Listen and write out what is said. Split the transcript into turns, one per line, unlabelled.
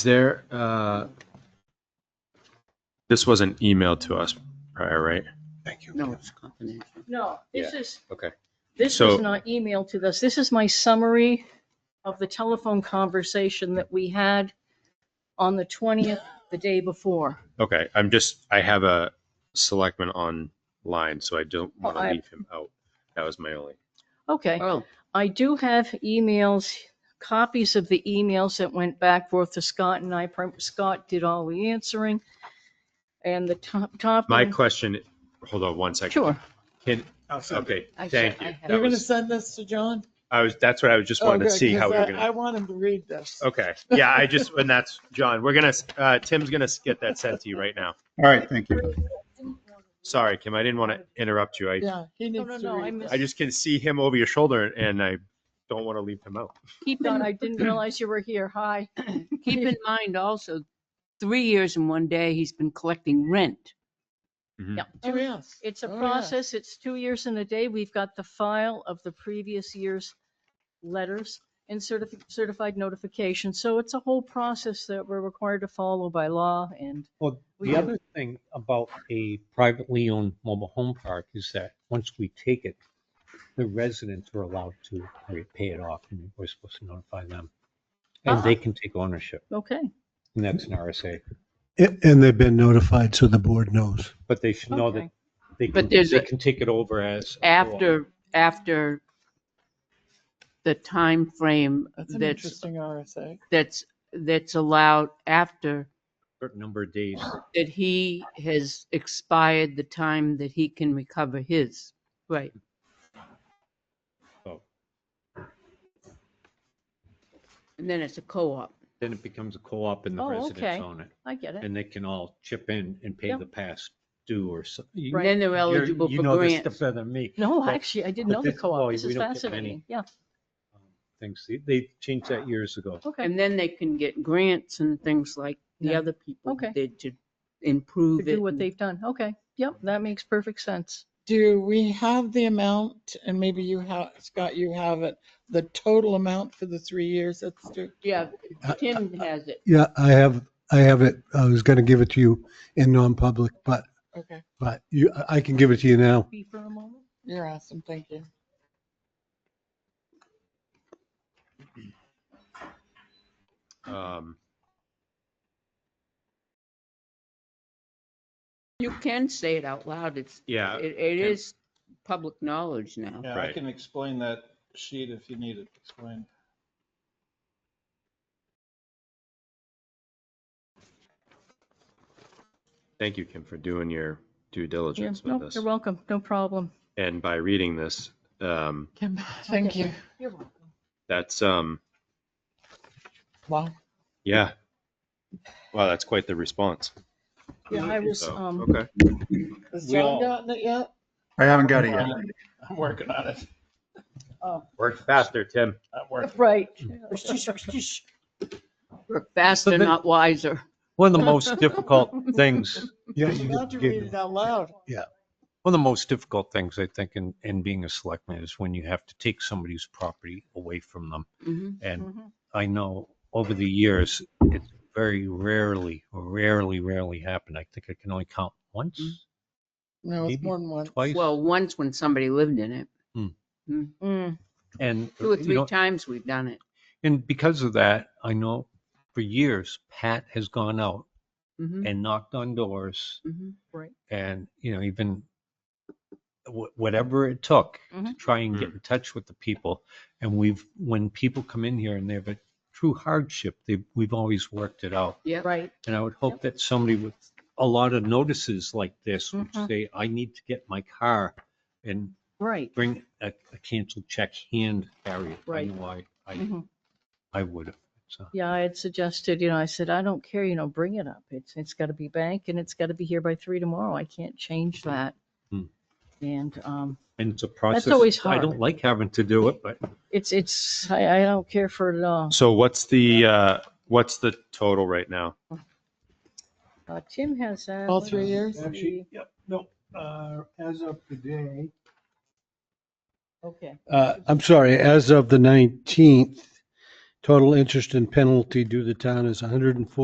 Is there, uh, this wasn't emailed to us prior, right?
Thank you.
No, it's confidential.
No, this is,
Okay.
this
So-
was not emailed to us. This is my summary of the telephone conversation that we had on the 20th, the day before.
Okay, I'm just, I have a selectman online, so I don't want
Oh,
to
I-
leave him out. That was my only.
Okay,
Oh,
I do have emails, copies of the emails that went back forth to Scott and I. Prim- Scott did all the answering. And the top, top.
My
one-
question, hold on one second.
Sure.
Can, okay,
I should-
thank
I
you.
have-
That
You're gonna
was-
send this to John?
I was, that's what I was just wanted to
Okay,
see how
Oh, 'cause uh,
we were
I-
gonna.
I want him to read this.
Okay, yeah, I just, and that's, John, we're gonna, uh, Tim's gonna get that sent to you right now.
All right, thank you.
Sorry, Kim, I didn't want to interrupt you. I,
Yeah, he
no,
needs to
no, I
read
missed-
I
this.
just can see him over your shoulder and I don't want to leave him out.
Keep on, I didn't realize you were here. Hi.
Keep in mind also, three years and one day, he's been collecting rent.
Oh, yes.
It's a
Oh, yeah.
process. It's two years and a day. We've got the file of the previous year's letters and certifi- certified notification. So it's a whole process that we're required to follow by law and
Well,
We
the
do.
other thing about a privately owned mobile home park is that once we take it, the residents are allowed to re- pay it off and we're supposed to notify them. And
Ah.
they can take ownership
okay.
and that's an RSA,
A- And they've been notified, so the board knows.
but they should know
Okay.
that they can,
But there's
they
a-
can take it over as. a co-op.
After, after the time frame
That's an
that's,
interesting RSA.
that's, that's allowed after
Certain number of days.
that he has expired the time that he can recover his. Right.
Oh.
And then it's a co-op.
Then it becomes a co-op and the
Oh, okay.
residents own it
I get it.
and they can all chip in and pay
Yeah.
the past due or so. you-
Then they're
you're-
eligible
you
for
know this
grants.
stuff Better than me.
No,
but-
actually, I didn't
but
know the
this- well,
co-op. This
we
is
don't get
fascinating.
any.
Yeah,
things. They- They changed that years ago.
okay.
And then they can get grants and things like the
Yeah.
other people
Okay.
did to
To
improve it.
do what
and-
they've done. Okay. Yep, that makes perfect sense.
Do we have the amount, and maybe you have, Scott, you have it, the total amount for the three years that's due?
Yeah,
I-
Tim has it.
Yeah, I have, I have it. I was going to give it to you in non-public, but,
Okay,
but you, I can give it to you now.
Be for a moment.
you're awesome, thank you.
Um,
You can say it out loud. It's,
yeah,
it, it
Tim.
is public knowledge now.
Yeah, I
Right.
can explain that sheet if you need it explained.
thank you, Kim, for doing your due
Yeah,
diligence with
no,
this.
you're welcome. No problem.
And by reading this, um,
Kim, thank you.
You're welcome.
that's, um,
Wow.
yeah. Wow, that's quite the response.
Yeah, I was,
So,
um,
Okay,
Has
We
John
all-
gotten it yet?
I haven't got it yet.
I'm working on it.
work faster, Tim.
I'm working.
right.
We're faster,
the-
not wiser.
One of the most difficult things
Yeah,
I'm
you
about to
can-
read it out loud.
One of the most difficult things I think in, in being a selectman is when you have to take somebody's property away from them.
Mhm.
And
Mhm.
I know over the years, it's very rarely, rarely, rarely happened. I think I can only count once,
No, it's
Maybe
more than one.
twice.
Mm-hmm. Well, once when somebody lived in it,
Mm,
And,
two or
you
three
know,
times we've done it.
and because of that, I know for years, Pat has gone out
Mhm,
and knocked on doors
mhm.
and you know even wh- whatever it took to
Mhm.
try and get in touch with the people and we've when people come in here and they have a true hardship they we've always worked it out
Yep.
Right.
and i would hope that somebody with a lot of notices like this would
Mhm.
say i need to get my car and
Right.
bring a, a canceled check hand carry it
Right.
i know i i,
Mhm.
I would have so
Yeah, I had suggested, you know, I said, I don't care, you know, bring it up. It's, it's gotta be bank and it's gotta be here by three tomorrow. I can't change that.
Hmm.
And, um,
and it's a process
always
i
hard.
don't like having to do it but
it's, it's, I, I don't care for it at all.
So what's the, uh, what's the total right now?
Uh, Tim has that.
All
Let
three
me
years?
see.
Actually, yep, no, uh, as of today,
Okay.
uh, I'm sorry, as of the 19th, Total interest and penalty due the town is 104.